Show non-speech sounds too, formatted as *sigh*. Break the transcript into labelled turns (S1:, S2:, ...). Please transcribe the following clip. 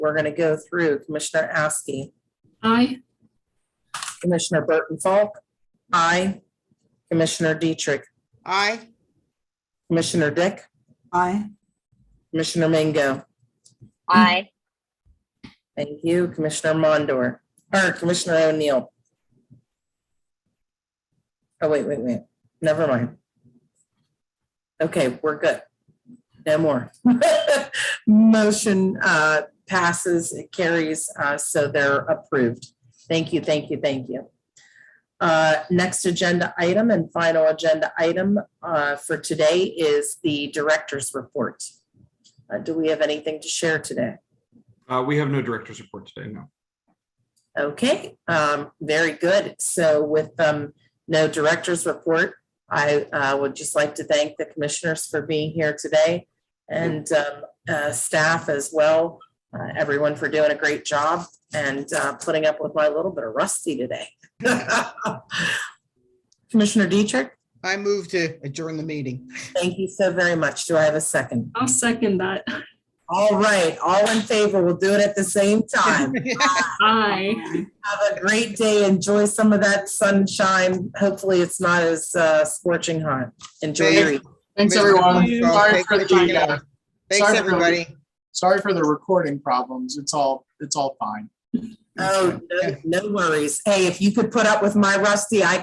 S1: We're going to go through Commissioner Askey,
S2: Aye.
S1: Commissioner Burton Falk, aye. Commissioner Dietrich,
S3: Aye.
S1: Commissioner Dick,
S3: Aye.
S1: Commissioner Mango.
S4: aye,
S1: Thank you, Commissioner Mondor, or Commissioner O'Neill. Oh, wait, wait, wait, never mind. Okay, we're good. No more. *laughs* Motion uh, passes, it carries, uh, so they're approved. Thank you, thank you, thank you. Uh, Next agenda item and final agenda item uh, for today is the director's report. Uh, Do we have anything to share today?
S5: Uh, we have no director's report today, no.
S1: Okay, um, very good. So with, um, no director's report, I, uh, would just like to thank the commissioners for being here today and, um, uh, staff as well, uh, everyone for doing a great job and, uh, putting up with my little bit of rusty today. *laughs* Commissioner Dietrich,
S3: I move to adjourn the meeting. *laughs*
S1: thank you so very much. Do I have a second?
S2: I'll second that.
S1: All right, all in favor, we'll do it at the same time.
S2: Aye.
S1: Have a great day. Enjoy some of that sunshine. Hopefully, it's not as uh, scorching hot. Enjoy your evening.
S6: Thanks,
S3: Mr.
S6: everyone.
S3: Montrose,
S6: Sorry
S3: thanks
S6: for
S3: checking
S6: the,
S3: out.
S6: uh,
S3: Thanks,
S6: Sorry for
S3: everybody.
S6: sorry for the recording problems. It's all, it's all fine.
S1: Oh, no, no worries. Hey, if you could put up with my rusty, I